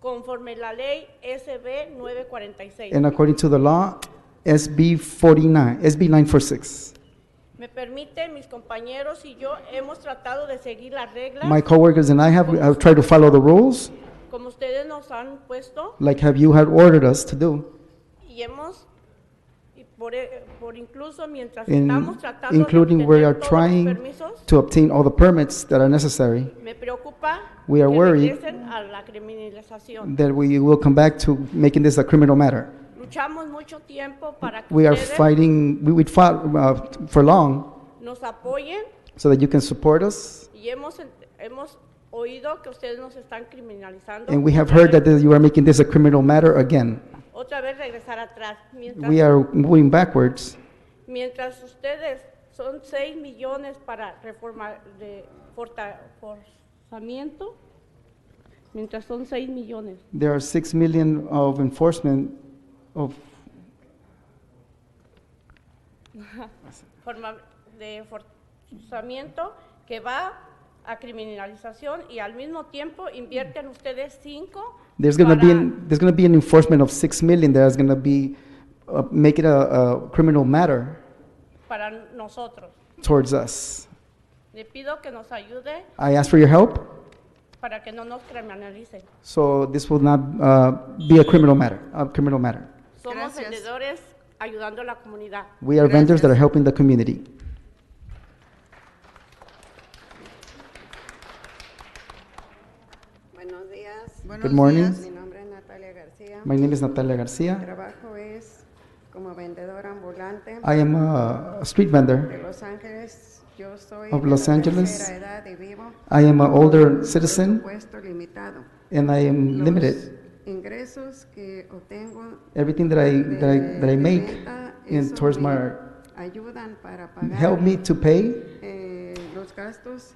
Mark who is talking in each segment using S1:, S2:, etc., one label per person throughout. S1: conforme la ley SB 946.
S2: and according to the law, SB 49, SB 946.
S1: Me permite, mis compañeros y yo hemos tratado de seguir las reglas
S2: My coworkers and I have, have tried to follow the rules
S1: como ustedes nos han puesto
S2: like have you had ordered us to do.
S1: y hemos y por, e- por incluso mientras
S2: In-
S1: estamos tratando de
S2: including we
S1: obtener
S2: are
S1: todos los
S2: trying
S1: permisos,
S2: to obtain all the permits that are necessary,
S1: me preocupa
S2: We are
S1: que
S2: worried
S1: regresen a la criminalización.
S2: that we will come back to making this a criminal matter.
S1: Luchamos mucho tiempo para que
S2: We are
S1: ustedes
S2: fighting, we, we fought uh, for long
S1: nos apoyen
S2: so that you can support us.
S1: y hemos, ent- hemos oído que ustedes nos están criminalizando.
S2: And we have heard that you are making this a criminal matter again.
S1: Otra vez regresar atrás. Mientras
S2: We are moving backwards.
S1: Mientras ustedes son 6 millones para reforma de forta- forzamiento, mientras son 6 millones,
S2: There are six million of enforcement of,
S1: forma de forzamiento que va a criminalización y al mismo tiempo invierten ustedes 5
S2: there's gonna be, an- there's gonna be an enforcement of six million that's gonna be, uh, make it a, a criminal matter
S1: para nosotros.
S2: towards us.
S1: Le pido que nos ayude
S2: I ask for your help.
S1: para que no nos criminalicen.
S2: So this will not uh, be a criminal matter, a criminal matter.
S1: Somos
S3: Gracias.
S1: vendedores ayudando a la comunidad.
S2: We are vendors that
S3: Gracias.
S2: are helping the community.
S4: Buenos días.
S3: Buenos
S2: morning.
S3: días.
S4: Mi nombre es Natalia García.
S2: My name is Natalia
S4: Mi
S2: Garcia.
S4: trabajo es como vendedora ambulante
S2: I am a street
S4: de
S2: vendor.
S4: Los Ángeles. Yo soy
S2: Of
S4: de
S2: Los
S4: la
S2: Angeles.
S4: tercera edad y vivo
S2: I am an older
S4: con
S2: citizen
S4: presupuesto limitado.
S2: and I am
S4: Los
S2: limited.
S4: ingresos que obtengo
S2: Everything that I,
S4: de,
S2: that I, that I
S4: de
S2: make
S4: venta,
S2: in
S4: eso
S2: towards
S4: me
S2: my,
S4: ayudan para pagar
S2: help me to pay
S4: eh, los gastos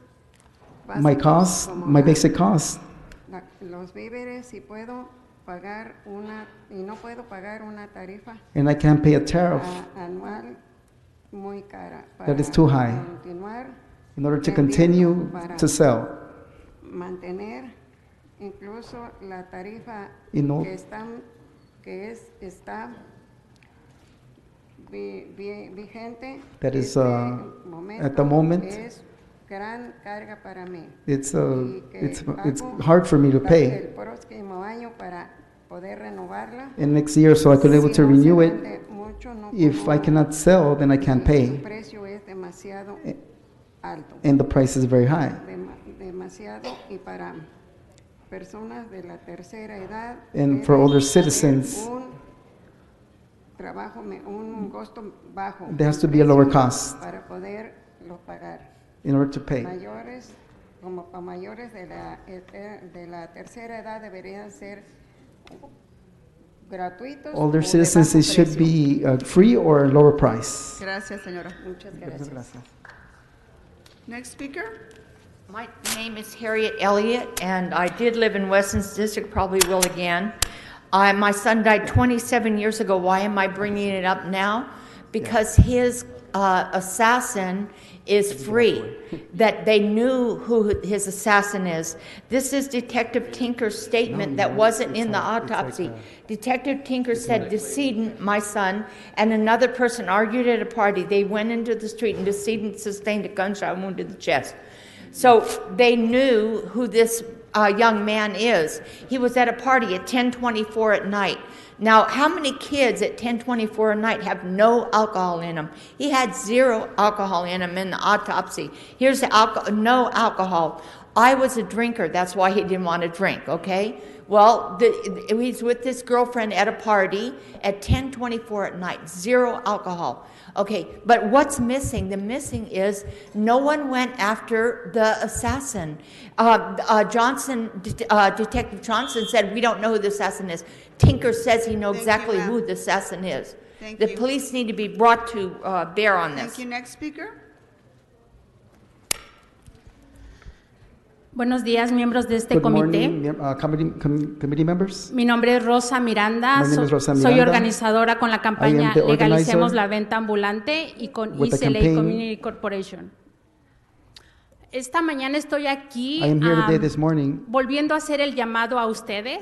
S2: my
S4: básicos
S2: costs,
S4: como
S2: my
S4: la-
S2: basic costs,
S4: la- los víveres y puedo pagar una y no puedo pagar una tarifa
S2: and I can't pay a tariff
S4: a- anual muy cara
S2: That is too high.
S4: continuar,
S2: in order to
S4: vendiendo
S2: continue
S4: para
S2: to sell.
S4: mantener incluso la tarifa
S2: Y no-
S4: que están que es está vi- vi- vigente
S2: That is,
S4: este
S2: uh,
S4: momento
S2: at the moment,
S4: es gran carga para mí
S2: It's,
S4: y
S2: uh,
S4: que
S2: it's, it's
S4: pago
S2: hard for me to
S4: hasta
S2: pay.
S4: el próximo año para poder renovarla
S2: And next year, so I could able to
S4: Si no se
S2: renew it.
S4: vende mucho, no
S2: If
S4: como
S2: I cannot sell, then I can't
S4: El
S2: pay,
S4: precio es demasiado
S2: Eh.
S4: alto,
S2: and the price is very high.
S4: dema- demasiado y para personas de la tercera edad.
S2: And
S4: debe
S2: for older
S4: haber
S2: citizens.
S4: Un trabajo, me- un costo bajo.
S2: There has to be a lower cost
S4: Para poderlo pagar.
S2: in order to pay.
S4: Mayores, como para mayores de la, ete- de la tercera edad deberían ser gratuitos. o
S2: Older
S4: de
S2: citizens,
S4: bajo
S2: it should
S4: precio.
S2: be uh, free or lower price.
S3: Gracias, señora.
S4: Muchas gracias.
S3: Next speaker.
S5: My name is Harriet Elliott, and I did live in Weston's district, probably will again. I, my son died 27 years ago. Why am I bringing it up now? Because his uh, assassin is free, that they knew who his assassin is. This is Detective Tinker's statement that wasn't in the autopsy. Detective Tinker said decedent, my son, and another person argued at a party. They went into the street, and decedent sustained a gunshot wound to the chest. So they knew who this uh, young man is. He was at a party at 10:24 at night. Now, how many kids at 10:24 at night have no alcohol in them? He had zero alcohol in him in the autopsy. Here's the alcohol, no alcohol. I was a drinker. That's why he didn't want to drink. Okay. Well, the, he's with this girlfriend at a party at 10:24 at night. Zero alcohol. Okay, but what's missing? The missing is no one went after the assassin. Uh, uh, Johnson, det- uh, Detective Johnson said, "We don't know who the assassin is." Tinker says he knows
S3: Thank you,
S5: exactly
S3: ma'am.
S5: who the assassin is.
S3: Thank
S5: the
S3: you.
S5: police need to be brought to uh, bear on this.
S3: Thank you. Next speaker.
S6: Buenos días, miembros de este
S2: Good
S6: comité.
S2: morning, mem- uh, committee, com- committee members.
S6: Mi nombre es Rosa Miranda.
S2: My name
S6: so-
S2: is Rosa
S6: Soy
S2: Miranda.
S6: organizadora con la campaña
S2: the organizer
S6: Legalicemos la Venta Ambulante y con
S2: with the
S6: ICLA
S2: campaign.
S6: Community Corporation. Esta mañana estoy aquí
S2: I am here today,
S6: am, um,
S2: this morning,
S6: volviendo a hacer el llamado a ustedes